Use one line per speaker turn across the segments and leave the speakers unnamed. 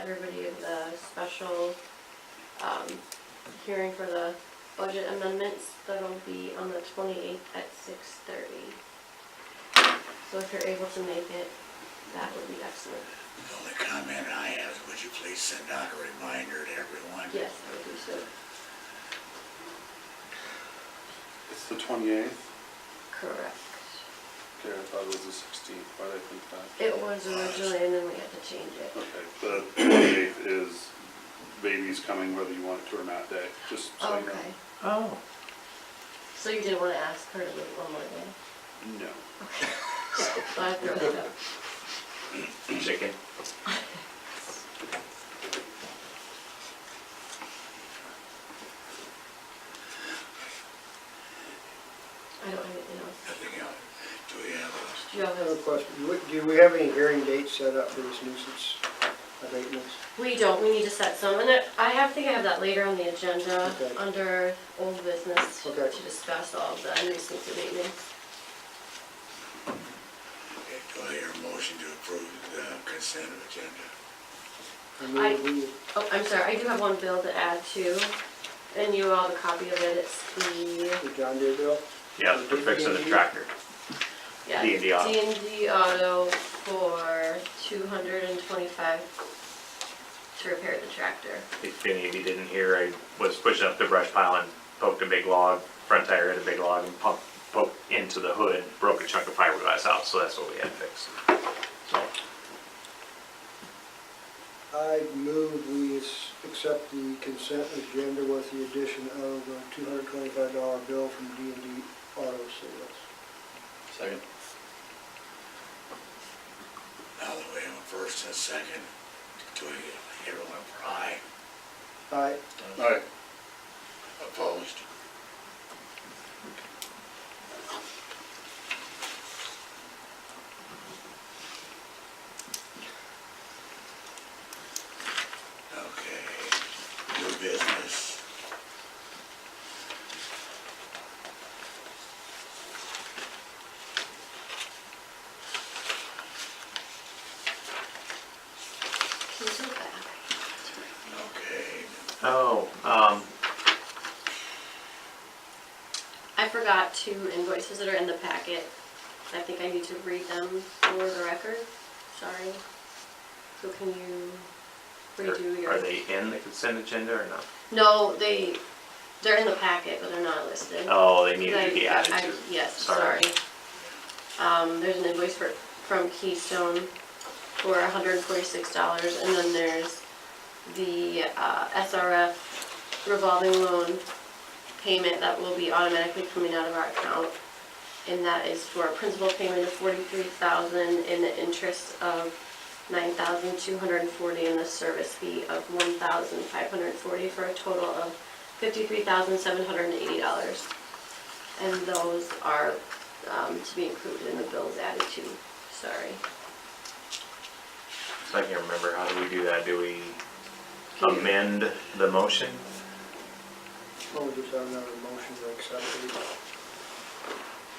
everybody of the special, um, hearing for the budget amendments. That'll be on the twenty-eighth at six thirty. So if you're able to make it, that would be excellent.
The only comment I have, is would you please send out a reminder to everyone?
Yes, I would do so.
It's the twenty-eighth?
Correct.
Okay, I thought it was the sixteenth, why did I think that?
It was originally, and then we had to change it.
Okay, the twenty-eighth is baby's coming whether you want it to or not day, just so you know.
Okay,
Oh.
so you didn't wanna ask her to wait one more day?
No.
So I threw it up.
Chicken.
I don't have anything else.
Nothing else. Do we have a
Do you all
I have a
have,
question. Do we- Do we have any hearing dates set up for this nuisance abatements?
we don't, we need to set some, and I- I have, think I have that later on the agenda,
Okay.
under old business, to
Okay.
discuss all of the nuisance abatements.
Do I hear a motion to approve the consent agenda?
I
I-
mean, we,
Oh, I'm sorry, I do have one bill to add to, and you all have a copy of it, it's the,
the John Deere bill?
Yeah, for fixing the tractor.
yeah.
D and D auto.
D and D auto for two hundred and twenty-five to repair the tractor.
If any of you didn't hear, I was pushing up the brush pile and poked a big log, front tire hit a big log and poked, poked into the hood, broke a chunk of fiberglass out, so that's what we had fixed. So,
I move we s- accept the consent agenda with the addition of a two hundred twenty-five dollar bill from D and D Auto Sales.
Second.
Now that we have a first and a second, do we hear one for aye?
I,
Alright,
Opposed? Okay, new business.
Can you do that?
Okay,
oh, um,
I forgot two invoices that are in the packet. I think I need to read them for the record. Sorry. So can you redo
are
your?
are they in the consent agenda or not?
No, they, they're in the packet, but they're not listed.
Oh, they needed
They-
to be added
I-
to.
Yes, sorry.
Sorry.
Um, there's an invoice for, from Keystone for hundred and forty-six dollars, and then there's the, uh, SRF revolving loan payment that will be automatically coming out of our account. And that is for a principal payment of forty-three thousand and the interest of nine thousand two hundred and forty and the service fee of one thousand five hundred and forty for a total of fifty-three thousand seven hundred and eighty dollars. And those are um, to be included in the bills added to, sorry.
So I can't remember, how do we do that? Do we amend the motion?
well, we Oh, just have another motion to accept it.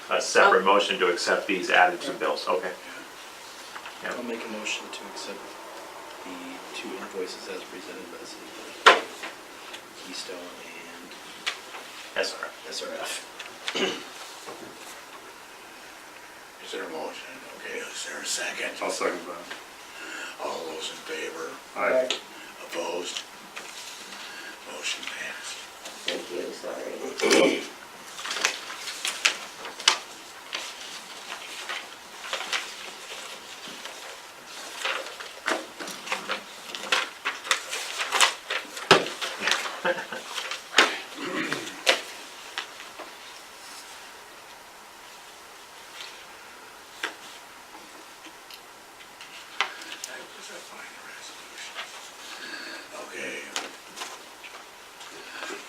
A
Oh.
separate motion to accept these added to bills, okay.
I'll make a motion to accept the two invoices as presented by the city clerk. Keystone and
That's all right.
SRF.
is there a motion? Okay, is there a second?
I'll second that.
All those in favor?
Alright,
Opposed? Motion passed.
Thank you, sorry.
That was a fine resolution. Okay.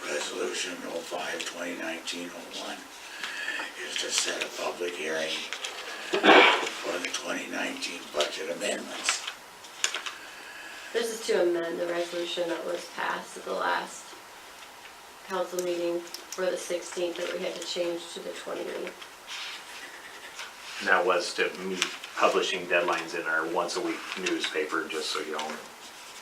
Resolution 05, 2019-01 is to set a public hearing for the 2019 budget amendments.
This is to amend the resolution that was passed at the last council meeting for the 16th that we had to change to the 20th.
And that was to meet publishing deadlines in our once-a-week newspaper, just so you all